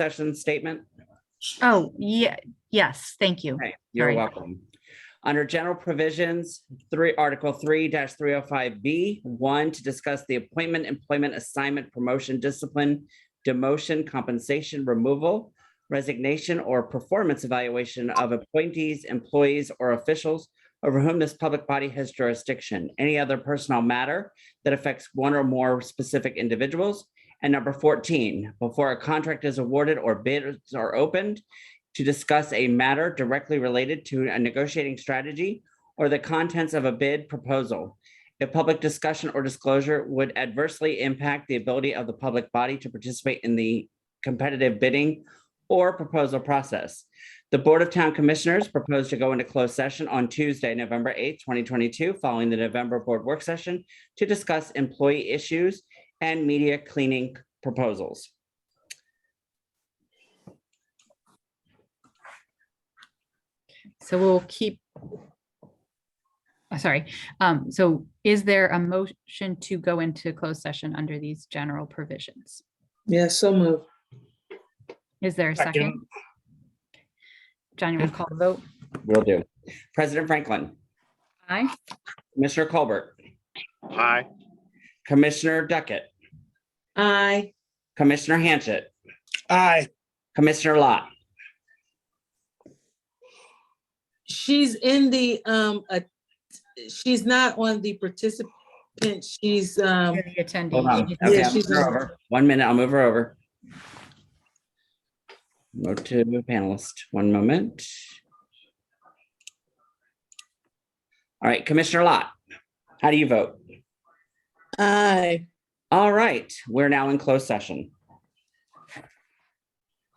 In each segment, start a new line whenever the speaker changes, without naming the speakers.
session statement?
Oh, yeah, yes, thank you.
Okay, You're
Sorry.
welcome. Under general provisions, three, Article three three oh five B, one, to discuss the appointment, employment, assignment, promotion, discipline, demotion, compensation, removal, resignation, or performance evaluation of appointees, employees, or officials over whom this public body has jurisdiction, any other personnel matter that affects one or more specific individuals. And number fourteen, before a contract is awarded or bids are opened, to discuss a matter directly related to a negotiating strategy or the contents of a bid proposal. If public discussion or disclosure would adversely impact the ability of the public body to participate in the competitive bidding or proposal process. The Board of Town Commissioners proposed to go into closed session on Tuesday, November 8th, 2022, following the November Board Work Session to discuss employee issues and media cleaning proposals.
So we'll keep. uh, Sorry, um, so is there a motion to go into closed session under these general provisions?
Yeah, so moved.
Is there a second?
Second.
Johnny will call the vote.
Will do. President Franklin,
Aye.
Commissioner Colbert.
Aye.
Commissioner Duckett,
Aye.
Commissioner Hanchett,
Aye.
Commissioner Lott.
She's in the, um, uh, she's not on the participant. She's, um,
You're the
Hold on.
attendee.
Okay,
Yeah,
I'll
she's
move her
on.
over. One minute, I'll move her over. Go to the panelist, one moment. All right, Commissioner Lott, how do you vote?
aye.
All right, we're now in closed session.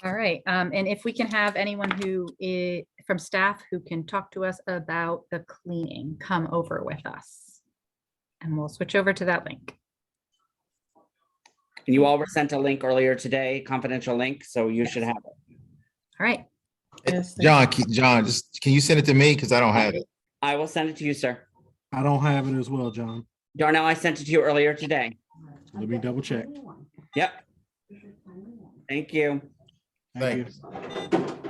All right, um, and if we can have anyone who is from staff who can talk to us about the cleaning, come over with us. And we'll switch over to that link.
And You all were sent a link earlier today, confidential link, so you should have it.
All right,
Yes, thank
John, can- John, just, can you send it to me? Because I don't have it.
I will send it to you, sir.
I don't have it as well, John.
Darnell, I sent it to you earlier today.
Let me double check.
Yep. Thank you.
Thank you.
Thanks.